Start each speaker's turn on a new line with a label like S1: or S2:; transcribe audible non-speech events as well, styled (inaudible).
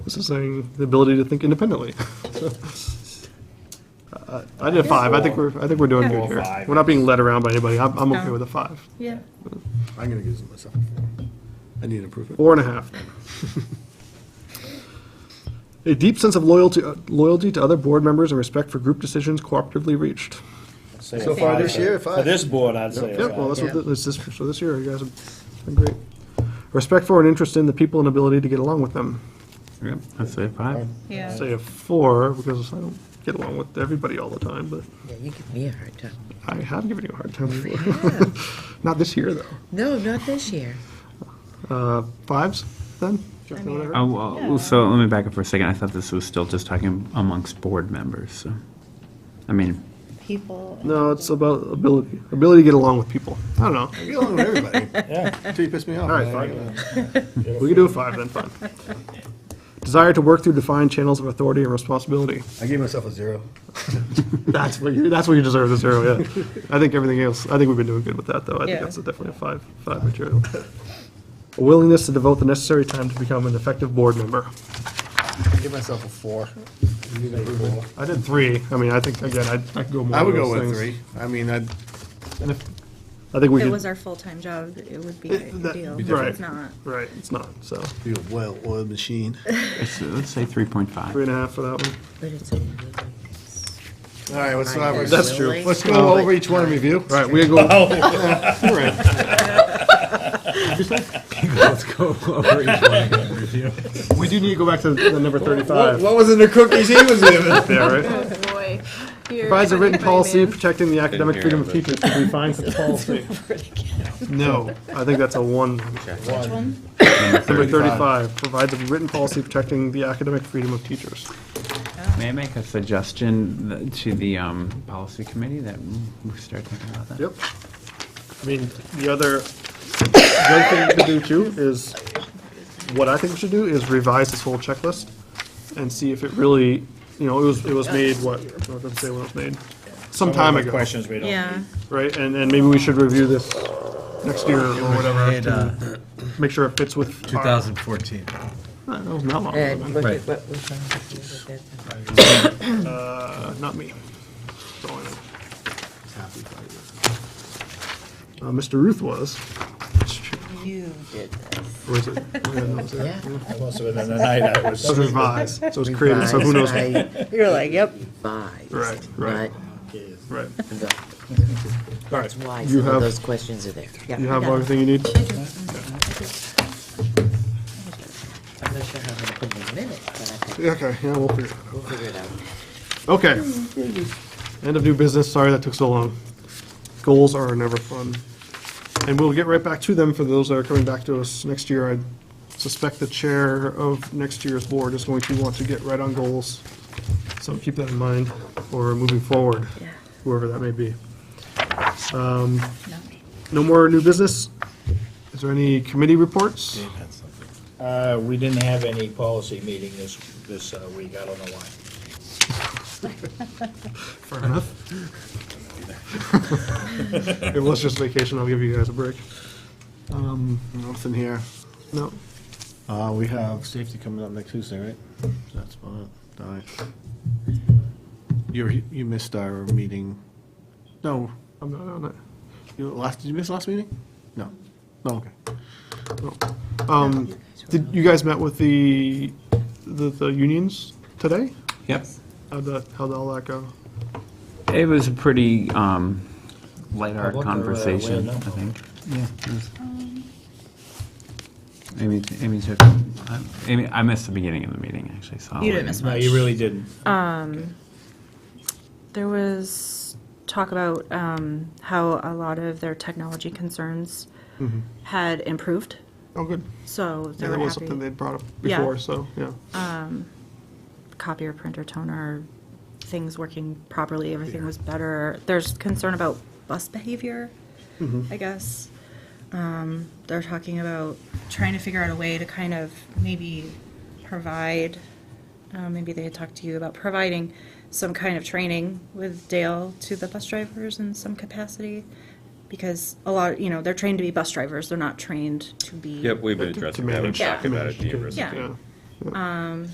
S1: This is saying the ability to think independently. (laughs) Uh, I did a five. I think we're, I think we're doing good
S2: Well,
S1: here.
S2: five
S1: We're not being led around by anybody. I'm, I'm okay
S3: No.
S1: with a five.
S3: Yeah.
S4: I'm gonna give it myself a four. I need improvement.
S1: Four and a half. A deep sense of loyalty, uh, loyalty to other board members and respect for group decisions cooperatively reached.
S2: Say a
S4: So far
S2: five.
S4: this year,
S2: For
S4: five.
S2: this board, I'd say
S1: Yeah, well,
S2: a
S1: that's
S2: five.
S1: what, thi- this, this, so this year, you guys have been great. Respect for and interest in the people and ability to get along with them.
S5: Yep, I'd say five.
S3: Yeah.
S1: Say a four, because I don't get along with everybody all the time, but
S6: Yeah, you give me a hard time.
S1: I have given you a hard time before.
S6: Yeah.
S1: (laughs) Not this year, though.
S6: No, not this year.
S1: Uh, fives, then? Jeff,
S3: mean-
S1: whatever.
S5: Oh, well, so let me back up for a second. I thought this was still just talking amongst board members, so. I mean,
S3: People.
S1: No, it's about ability, ability to get along with people. I don't
S3: (laughs)
S1: know.
S4: I get along with everybody,
S2: Yeah.
S4: until you piss me
S1: All
S4: off.
S1: right,
S4: and I
S1: fine.
S4: get along.
S1: We can do a five then, fine. Desire to work through defined channels of authority and responsibility.
S4: I gave myself a zero.
S1: That's what you, that's what you deserve, this arrow, yeah. I think everything else, I think we've been doing good with that, though. I think
S3: Yeah.
S1: that's definitely a five, five material. A willingness to devote the necessary time to become an effective board member.
S4: I gave myself a four. I need improvement.
S1: I did three. I mean, I think, again, I I could go more.
S4: I would
S1: of
S4: go
S1: those
S4: with
S1: things.
S4: three. I mean, I'd,
S1: And if- I think we
S3: If it was
S1: could,
S3: our full-time job, it would be a
S1: that-
S3: deal.
S1: be
S3: If
S1: different.
S3: It's not.
S1: right, it's not, so.
S4: be a well-oiled machine.
S5: let's let's say 3.5.
S1: Three and a half for that one.
S6: But it's only like this.
S4: All right, let's, not-
S6: Five.
S4: let's-
S6: That's true.
S4: Let's go over each one and review.
S1: All right, we go. (laughs)
S7: Let's go over each one again, review.
S1: We do need to go back to the number
S4: What
S1: thirty-five
S4: what was in the cookies he (laughs) was giving?
S1: there, right?
S3: Boy.
S1: Provides a written policy protecting the academic
S5: hear
S1: freedom of
S5: it,
S1: teachers to be defined as a policy. No, I think that's a one. Number thirty-five, provides a written policy protecting the academic freedom of teachers.
S5: May I make a suggestion that- to the um, policy committee that we start thinking about that?
S1: Yep. I mean, the other, the other thing to do too is, what I think we should do is revise this whole checklist and see if it really, you know, it was, it was made, what, I was gonna say when it was made, some time ago.
S2: Questions we don't.
S3: Yeah.
S1: Right, and, and maybe we should review this next year or whatever,
S7: In uh,
S1: make sure it fits with. our-
S7: 2014.
S1: Uh, That was not long, ago,
S6: And look at
S7: Right.
S6: what was on the agenda at that time.
S1: uh, not me. That's all I know. Uh, Mr. Ruth was.
S6: You did this.
S1: Or is it?
S6: (laughs)
S1: oh, yeah, no, it was there.
S6: Yeah.
S2: Must have been in the night I
S1: That
S4: (laughs)
S1: was
S2: was.
S1: revised, so it was created, so who knows?
S6: (laughs) You're like, yep. Revised.
S1: Right, right. Right.
S6: But the-
S1: All
S6: That's
S1: right,
S6: why
S1: you
S6: some of
S1: have,
S6: those questions are there. Yeah.
S1: you have everything you need?
S6: I'm not sure how I'm gonna put them in the minutes, but I think
S1: Okay, yeah, we'll figure it out.
S6: we'll figure it out.
S1: Okay. End of new business, sorry that took so long. Goals are never fun. And we'll get right back to them for those that are coming back to us next year. I suspect the chair of next year's board is going to want to get right on goals. So keep that in mind for moving forward,
S3: Yeah.
S1: whoever that may be.
S3: Not me.
S1: No more new business? Is there any committee reports?
S2: Uh, we didn't have any policy meeting this, this uh, week, I don't know why.
S1: Fair enough. (laughs) It was just vacation, I'll give you guys a break. Um,
S4: Nothing here.
S1: No,
S4: Uh, we have safety coming up next Tuesday, right? That's about it. All right. You, you missed our meeting. No,
S1: I'm not on it.
S4: you last, did you miss last meeting? No. No, okay.
S1: Um, Did, you guys met with the, the, the unions today?
S5: Yep.
S1: How'd that, how'd all that go?
S5: It was a pretty um, light
S2: Public or, uh,
S5: art conversation, I
S2: way of no
S5: think. Yeah. it was-
S6: Um,
S5: Amy, Amy took, I- uh, Amy, I missed the beginning of the meeting, actually, so. I'll
S6: You didn't
S5: let
S6: miss
S2: No, you really didn't.
S3: There was talk about um, how a lot of their technology concerns
S1: Mm-hmm.
S3: had improved,
S1: Oh, good.
S3: so they
S1: Yeah, that
S3: were
S1: was something
S3: happy.
S1: they'd brought up
S3: Yeah.
S1: before, so, yeah.
S3: Copier, printer, toner, things working properly, everything was better. There's concern about bus behavior, I guess. Um, They're talking about trying to figure out a way to kind of maybe provide, uh, maybe they had talked to you about providing some kind of training with Dale to the bus drivers in some capacity. Because a lot, you know, they're trained to be bus drivers, they're not trained to be.
S8: Yep, we've been
S1: To
S8: addressing that,
S1: manage-
S8: we've
S3: Yeah.
S8: talked about it, the
S1: to-
S8: ERISA.
S3: Yeah.